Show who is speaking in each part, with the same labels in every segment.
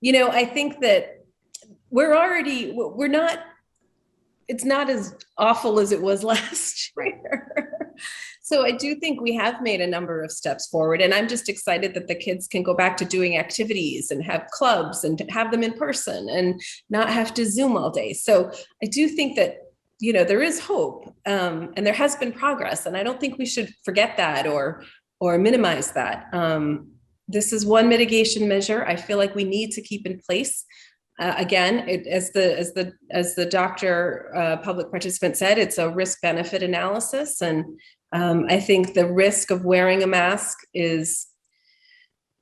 Speaker 1: you know, I think that we're already, we're not, it's not as awful as it was last year. So I do think we have made a number of steps forward and I'm just excited that the kids can go back to doing activities and have clubs and have them in person and not have to Zoom all day. So I do think that, you know, there is hope um, and there has been progress and I don't think we should forget that or, or minimize that. Um, this is one mitigation measure I feel like we need to keep in place. Uh, again, it, as the as the as the doctor uh, public participant said, it's a risk benefit analysis, and um, I think the risk of wearing a mask is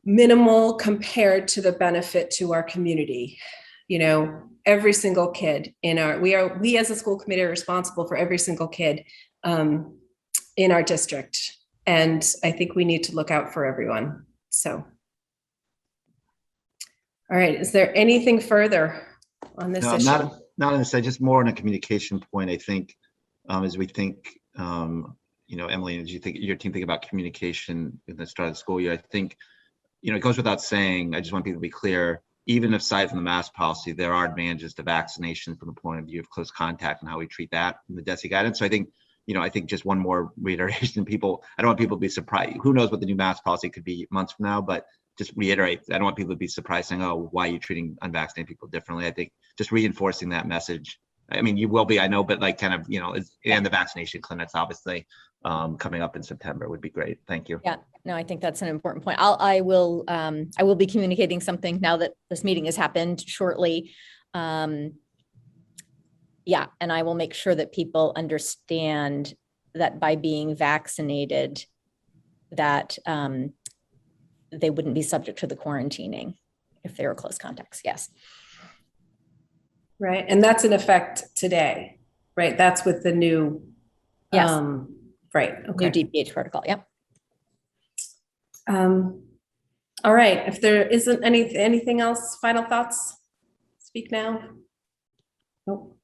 Speaker 1: minimal compared to the benefit to our community. You know, every single kid in our we are we as a school committee are responsible for every single kid um, in our district, and I think we need to look out for everyone. So. All right, is there anything further on this
Speaker 2: No,
Speaker 1: issue?
Speaker 2: not, not on this, side, just more on a communication point, I think, um, as we think, um, you know, Emily, as you think, your team think about communication in the start of the school year, I think, you know, it goes without saying, I just want people to be clear, even aside from the mask policy, there are advantages to vaccination from the point of view of close contact and how we treat that in the DESI guidance. So I think, you know, I think just one more reiteration, people, I don't want people to be surprised. Who knows what the new mask policy could be months from now, but just reiterate, I don't want people to be surprised saying, oh, why are you treating unvaccinated people differently? I think just reinforcing that message. I mean, you will be, I know, but like kind of, you know, it's- and the vaccination clinics, obviously, um, coming up in September would be great. Thank you.
Speaker 3: Yeah. No, I think that's an important point. I'll, I will, um, I will be communicating something now that this meeting has happened shortly. Um, yeah, and I will make sure that people understand that by being vaccinated, that, um, they wouldn't be subject to the quarantining if they were close contacts. Yes.
Speaker 1: Right, and that's in effect today, right? That's with the new.
Speaker 3: Yes.
Speaker 1: um, Right,
Speaker 3: New
Speaker 1: okay.
Speaker 3: DPH protocol. Yep.
Speaker 1: Um, All right, if there isn't any, anything else, final thoughts? Speak now. Nope.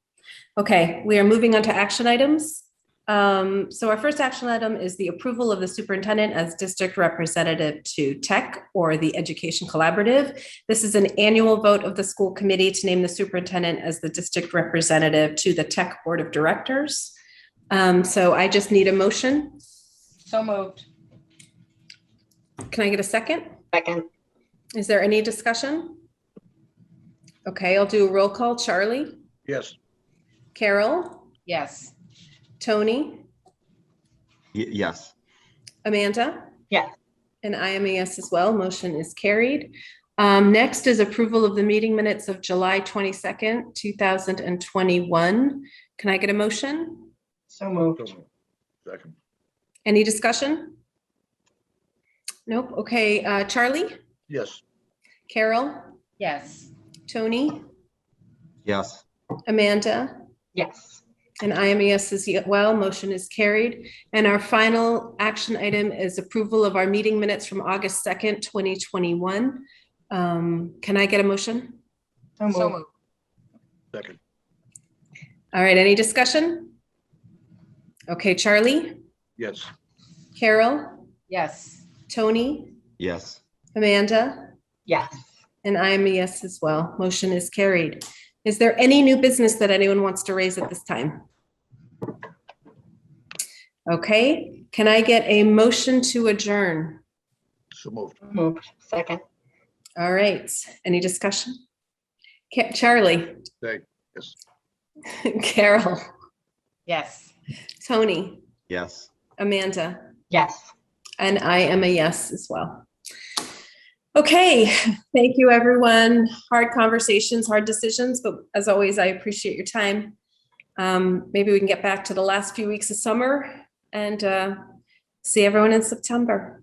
Speaker 1: Okay, we are moving on to action items. Um, So our first action item is the approval of the superintendent as district representative to tech or the education collaborative. This is an annual vote of the school committee to name the superintendent as the district representative to the tech board of directors. Um, So I just need a motion.
Speaker 4: So moved.
Speaker 1: Can I get a second?
Speaker 5: Second,
Speaker 1: Is there any discussion? Okay, I'll do a roll call. Charlie,
Speaker 6: Yes,
Speaker 1: Carol,
Speaker 4: Yes.
Speaker 1: Tony,
Speaker 2: Y- Yes,
Speaker 1: Amanda?
Speaker 5: Yes.
Speaker 1: And I am a yes as well. Motion is carried. Um, next is approval of the meeting minutes of July twenty-second, two thousand and twenty-one. Can I get a motion?
Speaker 5: so moved.
Speaker 6: so moved. second,
Speaker 1: Any discussion? Nope. Okay, uh, Charlie,
Speaker 6: yes,
Speaker 1: Carol,
Speaker 4: Yes.
Speaker 1: Tony,
Speaker 2: yes,
Speaker 1: Amanda?
Speaker 5: Yes,
Speaker 1: And I E am a yes as well. Motion is carried. And our final action item is approval of our meeting minutes from August 2nd, 2021. Um, Can I get a motion?
Speaker 5: so
Speaker 4: So
Speaker 5: moved.
Speaker 4: moved.
Speaker 6: second,
Speaker 1: All right, any discussion? Okay, Charlie,
Speaker 6: yes,
Speaker 1: Carol,
Speaker 4: Yes.
Speaker 1: Tony,
Speaker 2: yes.
Speaker 1: Amanda,
Speaker 5: Yes,
Speaker 1: and I am a yes as well. Motion is carried. Is there any new business that anyone wants to raise at this time? Okay, can I get a motion to adjourn?
Speaker 6: so moved,
Speaker 5: so moved. Second,
Speaker 1: All right, any discussion? Ca- Charlie,
Speaker 6: Thank- yes.
Speaker 1: Carol,
Speaker 4: Yes.
Speaker 1: Tony,
Speaker 2: Yes.
Speaker 1: Amanda,
Speaker 5: yes.
Speaker 1: and I am a yes as well. Okay, thank you, everyone. Hard conversations, hard decisions, but as always, I appreciate your time. Um, Maybe we can get back to the last few weeks of summer and uh, see everyone in September.